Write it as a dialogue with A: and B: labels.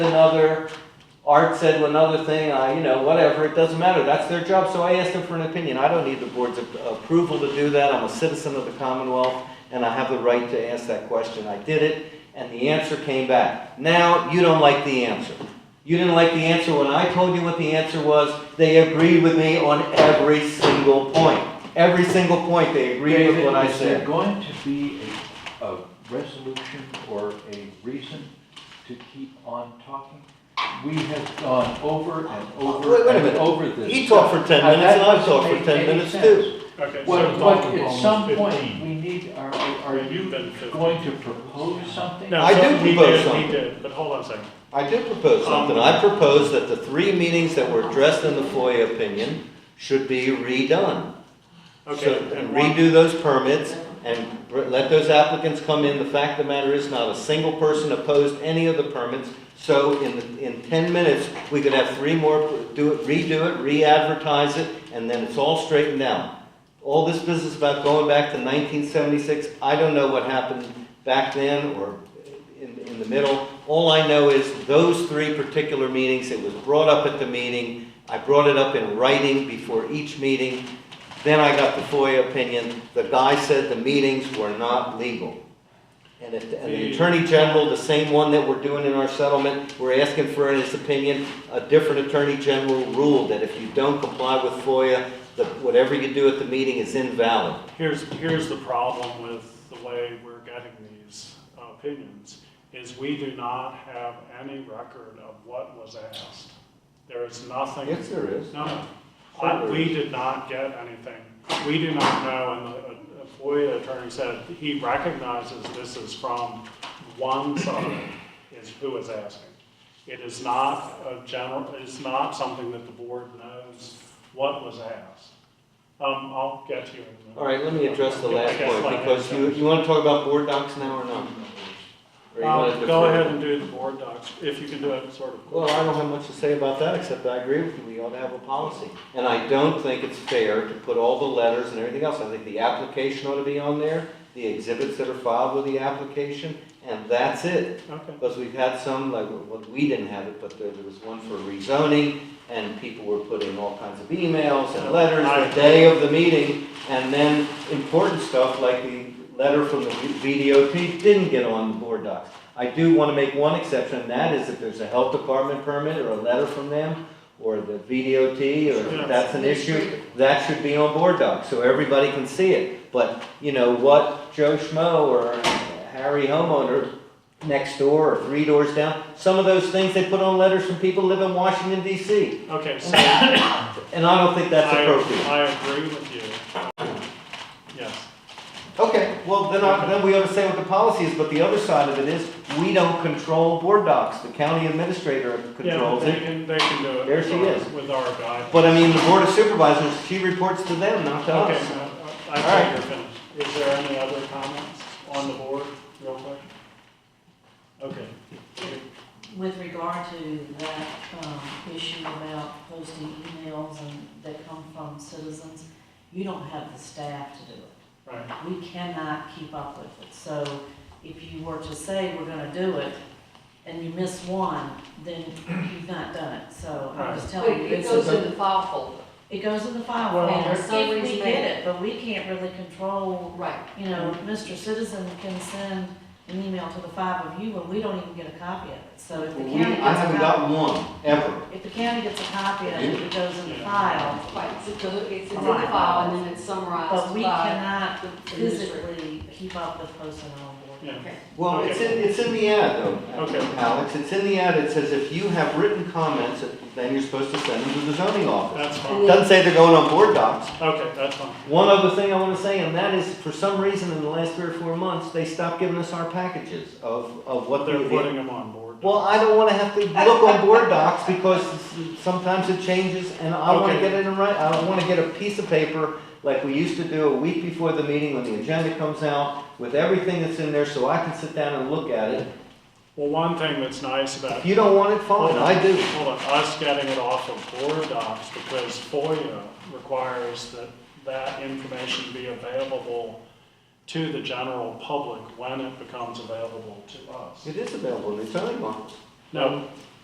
A: another, Art said another thing, I, you know, whatever, it doesn't matter, that's their job, so I asked them for an opinion, I don't need the board's a- approval to do that, I'm a citizen of the Commonwealth, and I have the right to ask that question, I did it, and the answer came back. Now, you don't like the answer. You didn't like the answer when I told you what the answer was, they agreed with me on every single point. Every single point, they agreed with
B: David,
A: what I
B: is there
A: said.
B: going to be a, a resolution or a reason to keep on talking? We have gone over and
A: Oh, Wait-
B: over
A: wait a
B: and
A: minute.
B: over this.
A: He talked for 10
B: Now,
A: minutes, and I
B: that
A: talked for
B: doesn't
A: 10
B: make any
A: minutes,
B: sense.
A: too.
C: Okay, so
B: What,
C: it's
B: what,
C: all-
B: at some point,
C: fifteen.
B: we need, are, are
C: Yeah, you've
B: you
C: been fifteen.
B: going to propose something?
C: No,
A: I
C: so
A: do
C: he
A: propose
C: did, he
A: something.
C: did, But hold on a second.
A: I did propose something. I proposed that the three meetings that were addressed in the FOIA opinion should be redone.
C: Okay,
A: So- And
C: and one-
A: redo those permits and br- let those applicants come in. The fact of the matter is, not a single person opposed any of the permits. So in, the- in 10 minutes, we could have three more, do it, redo it, re-advertise it, and then it's all straightened out. All this business about going back to 1976, I don't know what happened back then or in, in the middle. All I know is those three particular meetings, it was brought up at the meeting. I brought it up in writing before each meeting. Then I got the FOIA opinion. The guy said the meetings were not legal. And if, and the
C: The-
A: Attorney General, the same one that we're doing in our settlement, we're asking for his opinion. A different Attorney General ruled that if you don't comply with FOIA, that whatever you do at the meeting is invalid.
C: Here's, here's the problem with the way we're getting these opinions, is we do not have any record of what was asked. There is nothing.
A: there is.
C: No, no. I- we did not get anything. We do not know, and the uh, FOIA attorney said he recognizes this is from one side is who is asking. It is not a general, it's not something that the board knows what was asked. Um, I'll get to you in a minute.
A: All right, let me address the
C: Yeah, I
A: last
C: guess
A: point,
C: like-
A: because you, you wanna talk about board docs now or not? Or you wanna
C: Um, Go
A: defer?
C: ahead and do the board docs, if you can do it sort of.
A: Well, I don't have much to say about that, except I agree with you, we ought to have a policy. And I don't think it's fair to put all the letters and everything else, I think the application ought to be on there, the exhibits that are filed with the application, and that's it.
C: Okay.
A: Because we've had some, like, well, we didn't have it, but there, there was one for rezoning, and people were putting all kinds of emails and letters the day of the meeting, and then important stuff like the letter from the VDOT didn't get on the board docs. I do want to make one exception, and that is if there's a health department permit or a letter from them, or the VDOT, or if
C: Yes.
A: that's an issue, that should be on board docs, so everybody can see it. But, you know, what Joe Schmo or Harry homeowner next door or three doors down. Some of those things they put on letters from people who live in Washington D.C.
C: Okay, so.
A: And I don't think that's
C: I-
A: appropriate.
C: I agree with you. Yes.
A: Okay, well, then I, then we ought to say what the policy is, but the other side of it is, we don't control board docs. The county administrator controls
C: yeah, they
A: it.
C: Can, they can do it.
A: There she
C: with our-
A: is.
C: With our guide.
A: But I mean, the board of supervisors, she reports to them, not to
C: Okay,
A: us.
C: no, I I
A: All right.
C: think you're finished. Is there any other comments on the board, real quick? Okay.
D: With regard to that um, issue about posting emails and that come from citizens, you don't have the staff to do it.
C: Right,
D: We cannot keep up with it. So if you were to say we're gonna do it and you miss one, then you've not done it. So I'm just
E: But
D: telling you,
E: it
D: this
E: goes
D: is,
E: in the file folder.
D: it goes in the file
C: Well-
D: folder
E: And so
D: if we
E: we
D: get
E: may-
D: it, but we can't really control,
E: Right.
D: you know, Mr. Citizen can send an email to the five of you and we don't even get a copy of it. So if the county
A: We,
D: gets a copy.
A: I haven't gotten one, ever.
D: If the county gets a copy of it, it goes in the file,
E: Right, it's, it's it's in the
D: Right.
E: file and then it's
D: but
E: summarized
D: we
E: by
D: cannot
E: the administrator.
D: physically keep up with posting on board.
C: yeah.
A: Well, it's in, it's in the ad though,
C: Okay.
A: Alex. It's in the ad. It says if you have written comments, then you're supposed to send them to the zoning office.
C: That's
A: It
C: fine.
A: Doesn't say they're going on board docs.
C: Okay, that's fine.
A: One other thing I want to say, and that is, for some reason, in the last three or four months, they stopped giving us our packages of, of what
C: They're
A: they're.
C: putting them on board.
A: Well, I don't want to have to look on board docs because sometimes it changes and I want to
C: Okay.
A: get it in right, I want to get a piece of paper like we used to do a week before the meeting when the agenda comes out with everything that's in there so I can sit down and look at it.
C: Well, one thing that's nice about
A: If you don't want it, fine, I do.
C: Hold on, us getting it off of board docs, because FOIA requires that that information be available to the general public when it becomes available to us.
A: It is available in the zoning office.
C: No,